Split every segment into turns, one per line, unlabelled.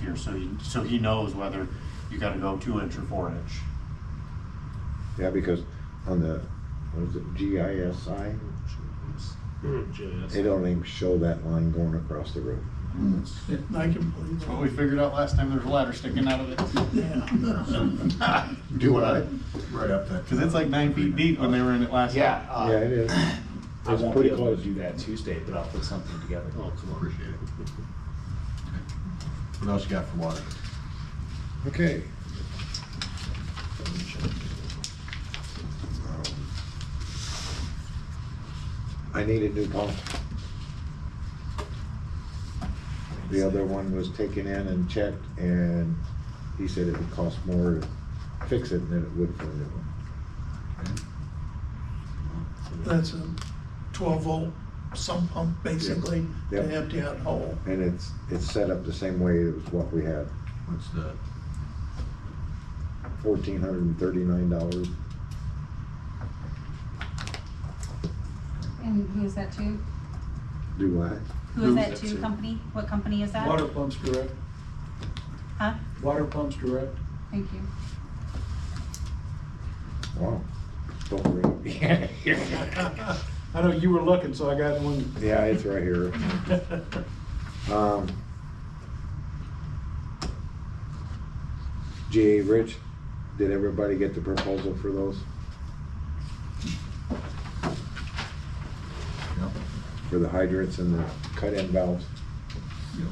here, so he, so he knows whether you gotta go two inch or four inch.
Yeah, because on the, what is it, GISI, they don't even show that line going across the road.
I can believe
That's what
Oh,
we figured out last time, there's a ladder sticking out of it.
that.
Do what I, right up that.
Cause it's like nine feet deep when they were in it last time.
Yeah,
Yeah, it
uh,
is.
I
It's
won't be
pretty
able
close.
to do that Tuesday, but I'll put something together.
Oh, come on. Appreciate it. What else you got for water?
Okay. I need a new pump. The other one was taken in and checked, and he said it would cost more to fix it than it would for a new one.
That's a twelve volt sump pump, basically,
Yeah.
to empty out hole.
And it's, it's set up the same way as what we had,
What's the,
fourteen hundred and thirty-nine dollars.
And who is that to?
Do I?
Who is that to company? What company is that?
Water pumps direct,
Huh?
water pumps direct.
Thank you.
Wow. Don't ring.
I know you were looking, so I got one.
Yeah, it's right here. Um, GA Rich, did everybody get the proposal for those,
yeah,
for the hydrants and the cut-in valves?
yeah.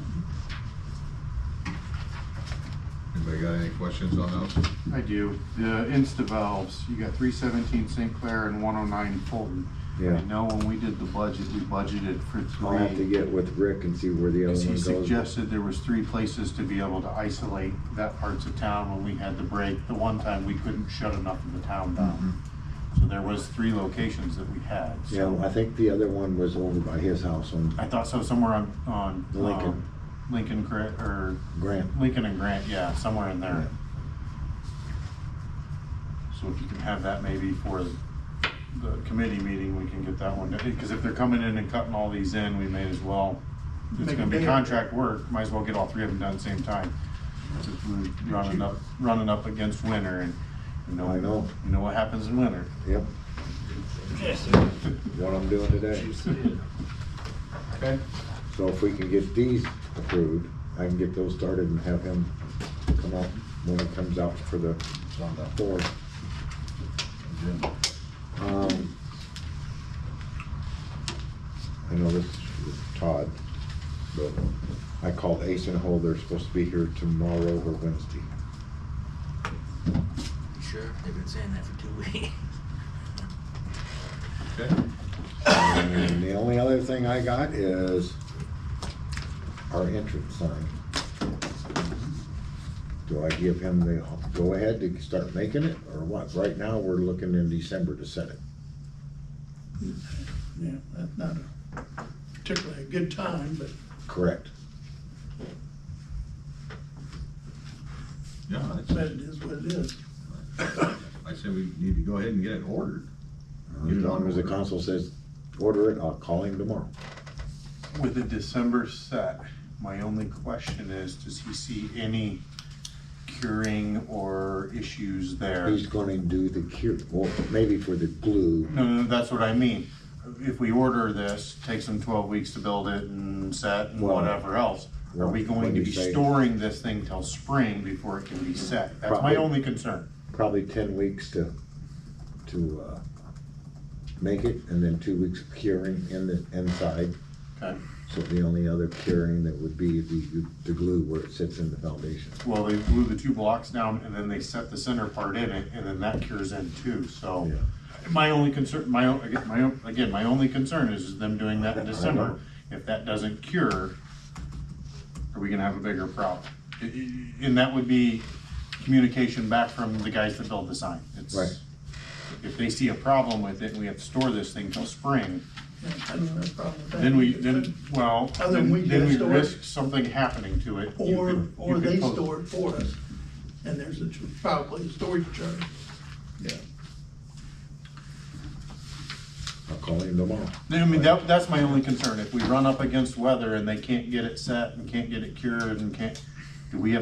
Anybody got any questions on those?
I do. The Insta valves, you got three seventeen St. Clair and one oh nine Fulton.
Yeah.
I know when we did the budget, we budgeted for
I'll have to
three.
get with Rick and see where the other
As
one
he
goes.
suggested, there was three places to be able to isolate that parts of town when we had the break. The one time we couldn't shut enough of the town down. So there was three locations that we had.
Mm-hmm. Yeah,
So
I think the other one was over by his house on
I thought so, somewhere on, on. um,
Lincoln.
Lincoln, Gra- or
Grant.
Lincoln and Grant, yeah, somewhere in there. So if you can have that maybe for the committee meeting, we can get that one, because if they're coming in and cutting all these in, we may as well, it's
Make
gonna
it
be
bigger.
contract work, might as well get all three of them done at the same time. Since we're Running up, running up against winter and, you know.
I know.
You know what happens in winter.
Yep. What I'm doing today.
Okay.
So if we can get these approved, I can get those started and have him come out when it comes out for the
It's on the
board.
agenda.
Um, I know this is Todd, but I called Ace and Hole, they're supposed to be here tomorrow or Wednesday.
Sure, they've been saying that for two weeks.
Okay,
And the only other thing I got is our entrance sign. Do I give him the go ahead to start making it or what? Right now, we're looking in December to set it.
Yeah, that's not a particularly a good time, but
Correct.
yeah, that's-
but it is what it is.
I say we need to go ahead and get it ordered.
As long as the council says, order it, I'll call him tomorrow.
With the December set, my only question is, does he see any curing or issues there?
He's gonna do the cure, well, maybe for the glue,
No, no, that's what I mean. If we order this, takes them twelve weeks to build it and set and
Well,
whatever else, are we going
well,
to
when
be
you say-
storing this thing till spring before it can be set? That's my
Probably.
only concern.
probably ten weeks to, to, uh, make it, and then two weeks of curing in the, inside.
Okay.
So the only other curing that would be the, the glue where it sits in the foundation.
Well, they blew the two blocks down and then they set the center part in it and then that cures in too, so.
Yeah.
My only concern, my, own- again, my, own- again, my only concern is them doing that in December. If that doesn't cure, are we gonna have a bigger problem? I- I- And that would be communication back from the guys that build the sign. It's-
Right.
If they see a problem with it and we have to store this thing till spring,
Yeah, I don't have a problem with that.
then we, then, well,
Other than
then
we get
then
it
we
stored.
risk something happening to it. You could-
Or,
you
or
could
they
post-
store it for us, and there's a, tr- probably a storage charge. Yeah.
I'll call him tomorrow.
I mean, that, that's my only concern, if we run up against weather and they can't get it set and can't get it cured and can't, do we have